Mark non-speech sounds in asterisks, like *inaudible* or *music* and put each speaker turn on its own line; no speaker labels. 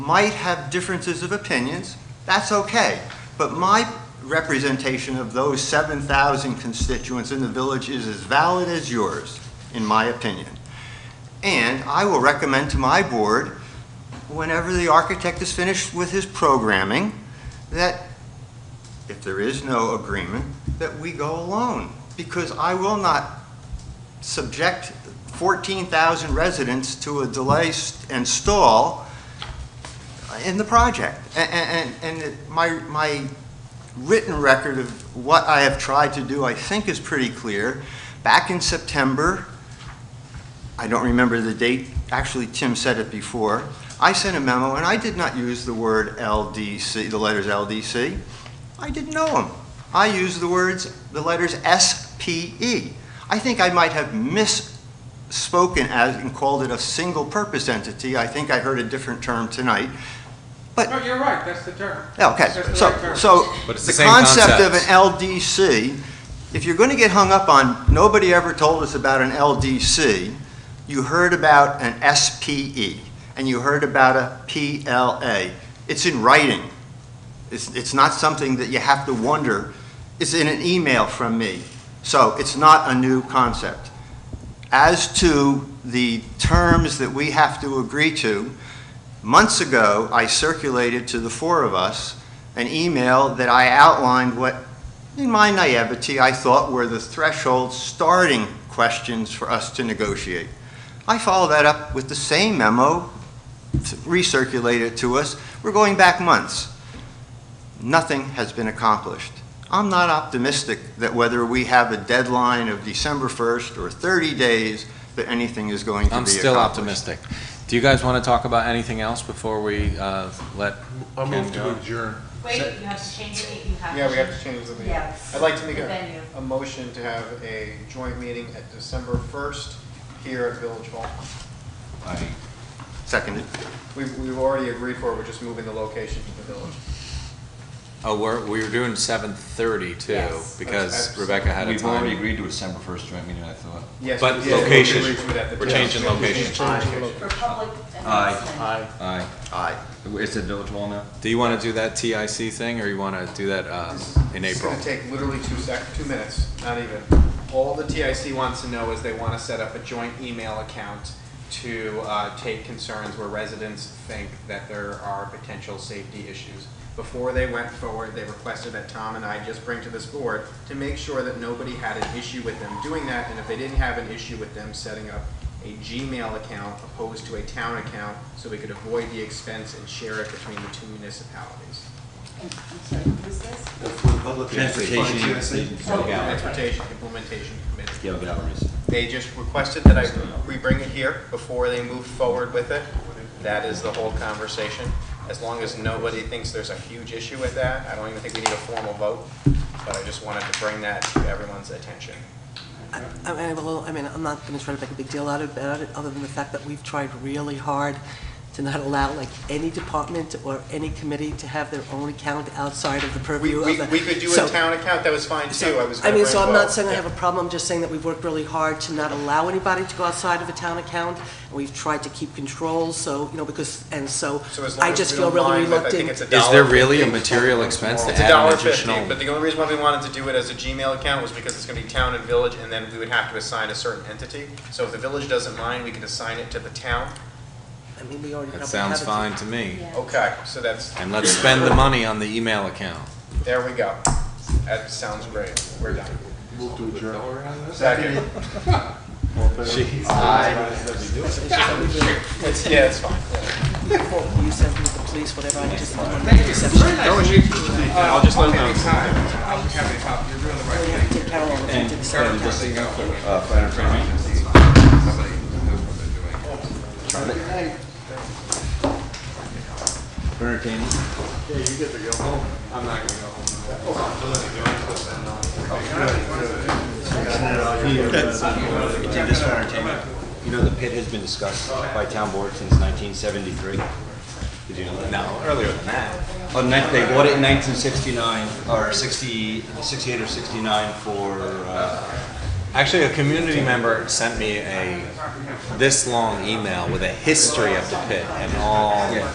might have differences of opinions, that's okay. But my representation of those 7,000 constituents in the village is as valid as yours, in my opinion. And I will recommend to my board, whenever the architect is finished with his programming, that if there is no agreement, that we go alone. Because I will not subject 14,000 residents to a delay st- and stall in the project. A- a- And, and, it- my, my written record of what I have tried to do, I think is pretty clear. Back in September, I don't remember the date, actually Tim said it before, I sent a memo and I did not use the word LDC, the letters LDC. I didn't know them. I used the words, the letters SPE. I think I might have misspoken as, and called it a single-purpose entity. I think I heard a different term tonight.
No, you're right, that's the term.
Okay,
That's the right
so,
term.
so
But it's
the
the same
concept of an
concept.
LDC, if you're going to get hung up on, nobody ever told us about an LDC, you heard about an SPE, and you heard about a PLA. It's in writing. It's, it's not something that you have to wonder. It's in an email from me. So it's not a new concept. As to the terms that we have to agree to, months ago, I circulated to the four of us an email that I outlined what, in my naivety, I thought were the threshold starting questions for us to negotiate. I followed that up with the same memo, recirculated to us. We're going back months. Nothing has been accomplished. I'm not optimistic that whether we have a deadline of December 1st or 30 days, that anything is going to be
I'm
accomplished.
still optimistic. Do you guys want to talk about anything else before we uh, let?
I move
Ken go?
to adjourn.
Wait, you have to change it, you have to.
Yeah, we have to change the venue.
Yes.
I'd like to make
The
a,
venue.
a motion to have a joint meeting at December first here at Village Hall.
Seconded.
We've, we've already agreed for it, we're just moving the location to the village.
Oh, we're, we were doing seven thirty too,
Yes.
because
That's-
Rebecca had a
We've already
time.
agreed to a December first joint meeting, I thought.
Yes.
But
we- yeah, we
location.
agreed to it at the
We're
village.
changing location.
For public announcement.
Aye.
Aye.
Aye.
Aye.
It's at Village Hall now?
Do you want to do that TIC thing, or you want to do that uh, in
It's
April?
gonna take literally two sec, two minutes, not even. All the TIC wants to know is they wanna set up a joint email account to, uh, take concerns where residents think that there are potential safety issues. Before they went forward, they requested that Tom and I just bring to this board to make sure that nobody had an issue with them doing that, and if they didn't have an issue with them setting up a Gmail account opposed to a town account, so we could avoid the expense and share it between the two municipalities.
I'm sorry, who's this?
Transportation.
Oh, okay.
Transportation Implementation Committee.
Gail Galleries.
They just requested that I, we bring it here before they move forward with it. That is the whole conversation. As long as nobody thinks there's a huge issue with that, I don't even think we need a formal vote, but I just wanted to bring that to everyone's attention.
I mean, I'm a little, I mean, I'm not gonna try to make a big deal out of about it, other than the fact that we've tried really hard to not allow, like, any department or any committee to have their own account outside of the
We,
purview of
we,
the...
we could do
So-
a town account, that was fine too, I was
I
gonna
mean,
bring
so I'm
both.
not saying I have
Yeah.
a problem, just saying that we've worked really hard to not allow anybody to go outside of a town account, and we've tried to keep control, so, you know, because, and so,
So as long
I
as
just
we
feel
don't
really
mind, like, I think it's
reluctant.
a
Is there
dollar
really a
fifty.
material expense to
It's a
add
dollar
an
fifty, but
additional?
the only reason why we wanted to do it as a Gmail account was because it's gonna be town and village, and then we would have to assign a certain entity. So if the village doesn't mind, we can assign it to the town.
I mean, we already
That
have-
sounds
have it.
fine to me.
Yeah.
Okay, so that's,
And let's spend the money on the email account.
there we go. That sounds great. We're done.
Move to adjourn.
Second. *laughs*
Jeez.
It's, yeah, it's fine.
You sent me the police, whatever, I just want to make a exception.
I'll just let them know.
We have to take Carol over to the side.
Entertaining.
This one entertainment. You know, the pit has been discussed by town board since 1973. Did you know that?
No, earlier than that.
Oh, ni- They bought it in 1969, or 60, 68 or 69 for, uh,
Actually, a community member sent me a this long email with a history of the pit and all.